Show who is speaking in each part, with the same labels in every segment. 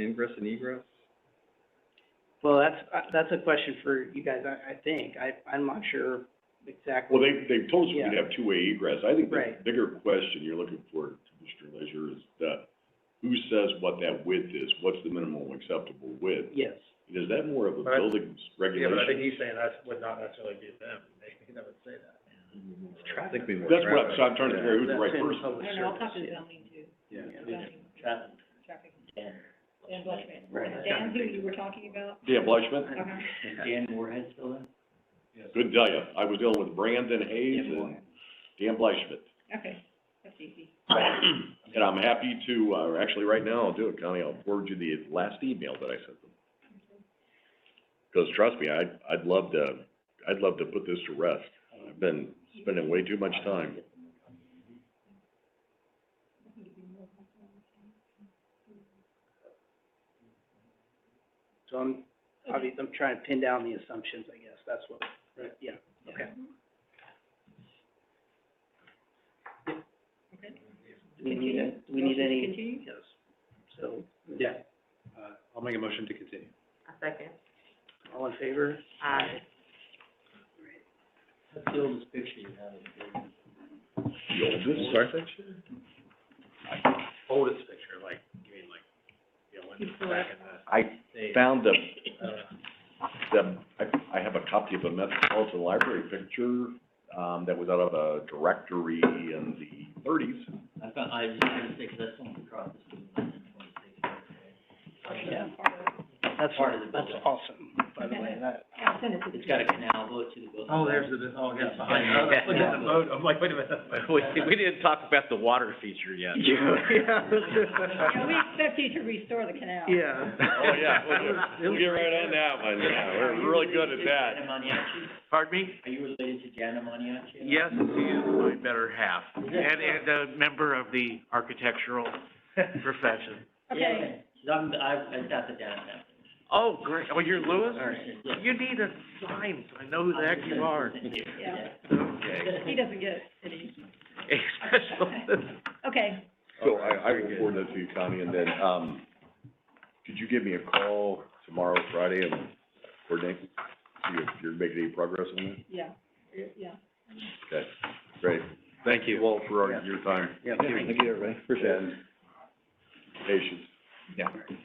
Speaker 1: ingress and egress?
Speaker 2: Well, that's, uh, that's a question for you guys, I, I think. I, I'm not sure
Speaker 3: Well,
Speaker 2: exactly.
Speaker 3: they, they've told us we'd
Speaker 2: Yeah.
Speaker 3: have two-way egress. I think the
Speaker 2: Right.
Speaker 3: bigger question you're looking for, Commissioner Leisure, is that who says what that width is? What's the minimum acceptable width?
Speaker 2: Yes.
Speaker 3: And Is that more of a
Speaker 4: But I-
Speaker 3: building's
Speaker 4: Yeah, but I think
Speaker 3: regulation?
Speaker 4: he's saying that would not necessarily be them, they, they would say that.
Speaker 1: I think we more
Speaker 3: That's what I'm,
Speaker 1: traffic.
Speaker 3: so I'm trying to figure out who's the
Speaker 2: That's
Speaker 3: right
Speaker 2: in
Speaker 3: person.
Speaker 2: public
Speaker 5: I don't know, I'll talk to
Speaker 2: service, yeah.
Speaker 5: zoning too,
Speaker 1: Yeah.
Speaker 5: zoning,
Speaker 4: Traffic.
Speaker 5: traffic, Dan, Dan Blushman.
Speaker 2: Right.
Speaker 5: Dan, who you were talking about?
Speaker 3: Yeah, Blyschmidt?
Speaker 5: Uh-huh.
Speaker 4: Dan Moorhead still there?
Speaker 3: Couldn't tell you. I was dealing with Brandon Hayes and Dan Blyschmidt.
Speaker 5: Okay, that's easy.
Speaker 3: And I'm happy to, uh, actually, right now, I'll do it, Connie, I'll forward you the last email that I sent them. Because trust me, I'd, I'd love to, I'd love to put this to rest. I've been spending way too much time.
Speaker 2: So I'm, obvi- I'm trying to pin down the assumptions, I guess, that's what, right, yeah, okay.
Speaker 5: Mm-hmm.
Speaker 2: Do we need, a- do we need
Speaker 5: Motion to
Speaker 2: any,
Speaker 5: Continue?
Speaker 2: yes, so,
Speaker 4: Yeah. Uh, I'll make a motion to continue.
Speaker 5: A second.
Speaker 2: all in favor?
Speaker 5: Aye.
Speaker 3: The oldest section?
Speaker 4: Oldest picture, like, you mean like, you know, when
Speaker 5: He's
Speaker 4: back in the
Speaker 3: I
Speaker 4: day,
Speaker 3: found the,
Speaker 4: uh,
Speaker 3: the, I, I have a copy of a Metropolitan Library picture, um, that was out of a directory in the thirties.
Speaker 6: I found, I was gonna say, 'cause that's the one we crossed, this was nine and twenty-six, right?
Speaker 2: Yeah. That's,
Speaker 6: Part of the
Speaker 2: that's
Speaker 6: building.
Speaker 2: awesome, by the way, that,
Speaker 5: I'll send it to the.
Speaker 6: It's got a canal boat to the building.
Speaker 4: Oh, there's the, oh, yeah, behind, you. I was looking at the boat, I'm like, wait a minute.
Speaker 1: We, we
Speaker 3: Oh,
Speaker 1: didn't talk about the water feature yet.
Speaker 5: Yeah, we expect you to restore the canal.
Speaker 2: yeah.
Speaker 3: Oh, yeah, we'll, we'll get right on that one, yeah, we're really good at that.
Speaker 6: Are you related to Gianna Maniaci?
Speaker 7: Pardon me?
Speaker 6: Are you related to Gianna Maniaci?
Speaker 7: Yes, he is my better half, and, and a member of the architectural profession.
Speaker 5: Okay,
Speaker 6: Yeah, she's- I'm, I, I got the downtown.
Speaker 7: Oh, great, oh, you're Lewis?
Speaker 6: Yeah.
Speaker 7: You need a sign, so I know who the heck you are.
Speaker 5: yeah,
Speaker 7: Okay.
Speaker 5: he doesn't get it, did he?
Speaker 7: Special-
Speaker 5: Okay,
Speaker 3: So I, I will forward that to you, Connie, and then, um, could you give me a call tomorrow, Friday, and coordinate, see if you're making any progress on that?
Speaker 5: yeah, yeah.
Speaker 3: Okay, great. Thank you all for our- your time
Speaker 1: Yeah, thank you, everybody.
Speaker 3: and patience.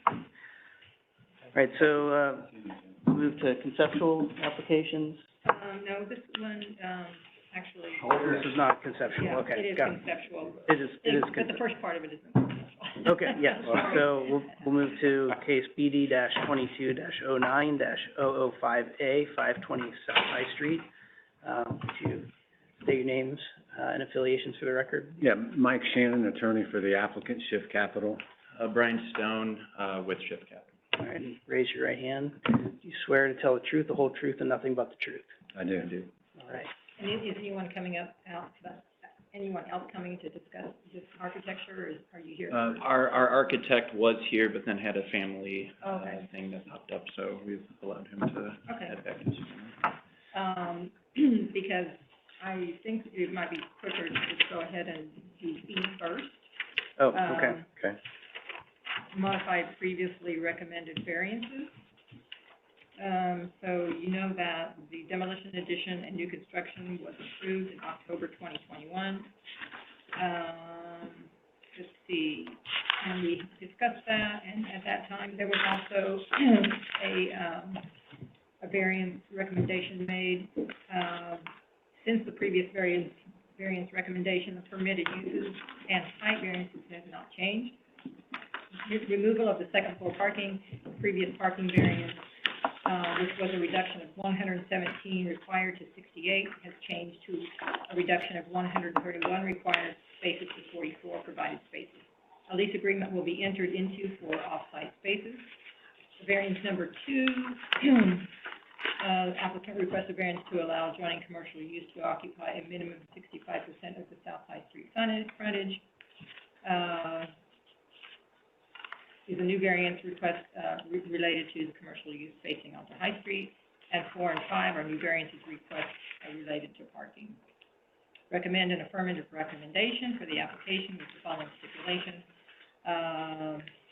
Speaker 2: Right, so, uh, move to conceptual applications,
Speaker 5: Um, no, this one, um, actually,
Speaker 2: this is not conceptual,
Speaker 5: yeah, it
Speaker 2: Oh, okay,
Speaker 5: is
Speaker 2: got it.
Speaker 5: conceptual.
Speaker 2: It is, it is
Speaker 5: It- But the
Speaker 2: conceptual.
Speaker 5: first part of it isn't conceptual.
Speaker 2: Okay, yes, so we'll, we'll move to case BD dash twenty-two dash oh nine dash oh oh five A, five twenty South High Street. Um, would you state your names, uh, and affiliations for the record?
Speaker 8: Yeah, Mike Shannon, attorney for the applicant, Shift Capital.
Speaker 1: Uh, Brian Stone, uh, with Shift Capital.
Speaker 2: All right, and raise your right hand. Do you swear to tell the truth, the whole truth, and nothing but the truth?
Speaker 8: I do.
Speaker 2: All right,
Speaker 5: And is, is anyone coming up, out, anyone else coming to discuss this architecture, or is- are you here?
Speaker 1: Uh, our, our architect was here, but then had a family, uh,
Speaker 5: Okay.
Speaker 1: thing that popped up, so we've allowed him to
Speaker 5: Okay.
Speaker 1: head back into Sacramento.
Speaker 5: um, because I think it might be quicker to just go ahead and do B first.
Speaker 2: oh,
Speaker 5: Um,
Speaker 2: okay,
Speaker 8: okay.
Speaker 5: Modify previously recommended variances. Um, so you know that the demolition addition and new construction was approved in October twenty twenty-one. Um, let's see, and we discussed that, and at that time, there was also a, um, a variance recommendation made. Um, since the previous variance, variance recommendation, the permitted uses and height variances have not changed. Re- Removal of the second floor parking, previous parking variance, uh, which was a reduction of one hundred and seventeen required to sixty-eight, has changed to a reduction of one hundred and thirty-one required spaces to forty-four provided spaces. A lease agreement will be entered into for off-site spaces. Variance number two, uh, applicant requests a variance to allow adjoining commercial use to occupy a minimum of sixty-five percent of the South High Street frontage, frontage. Uh, is a new variance request, uh, re- related to the commercial use facing onto High Street. And four and five are new variances requests uh, related to parking. Recommend an affirmative recommendation for the application with the following stipulation. Uh,